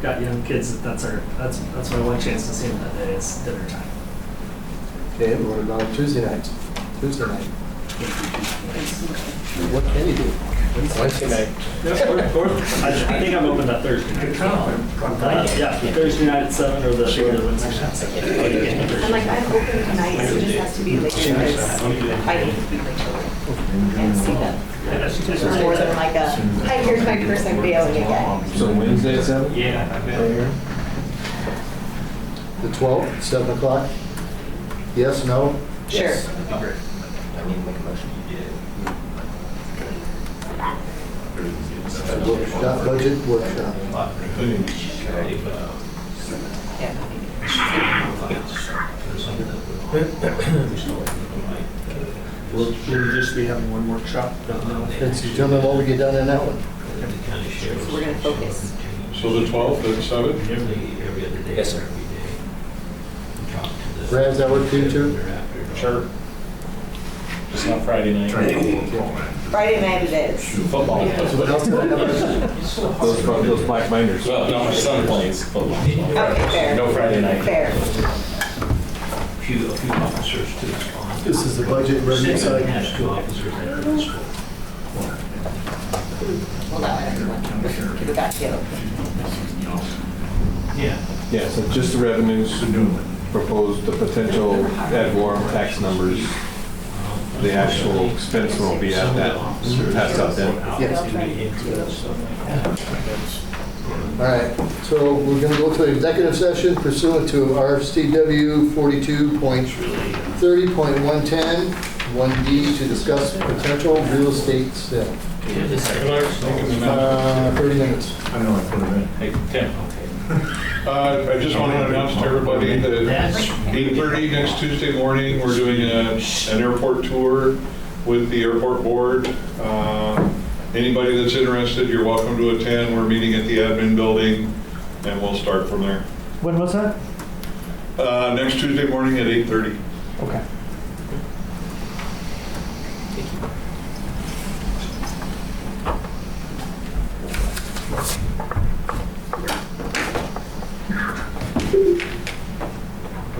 got young kids, that that's our, that's, that's my one chance to see them that day is dinner time. Okay, what about Tuesday night? Tuesday night? What can you do? Wednesday night. I I think I'm open that Thursday. night. Uh, Yeah, Thursday night at seven or the or the Wednesday night. I'm like, I'm open tonight, so it just has to be late, because I need to be late. And see them, It's more than like a, hi, here's my purse, I'm bailing again. So Wednesday at seven? Mayor? The 12th, 7 o'clock? Yes, no? Sure. Workshop, budget workshop. We'll, we'll just be having one workshop. Don't know. Let's determine what we get done in that one. So we're gonna focus. So the 12th at 7? Yes, sir. Brad, does that work for you too? Sure. It's not Friday night. Friday night it is. Football. Those, those black binders. Well, no, my son plays football. Okay, No fair, Friday night. fair. Few, a few officers to respond. This is the budget review cycle. There's two officers at the school. Hold on, everyone, we got you. Yeah. Yeah, so just the revenues, proposed the potential ad valorem tax numbers. The actual expense will be at that, passed out then. All right, so we're going to go to executive session pursuant to RCW 42.30.110, 1D to discuss potential real estate sale. Uh, 30 minutes. Hey, Tim. Uh, I just want to announce to everybody that 8:30 next Tuesday morning, we're doing a- an airport tour with the airport board. Um, Anybody that's interested, you're welcome to attend. We're meeting at the admin building, and we'll start from there. When was that? Uh, Next Tuesday morning at 8:30. Okay.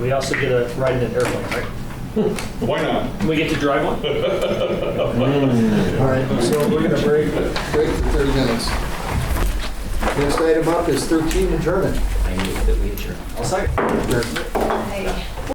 We also get a ride in an airplane, right? Why not? We get to drive one? All right, so we're going to break, break for 30 minutes. Next item up is 13, adjournment. I'll say. Adjournment. Hey.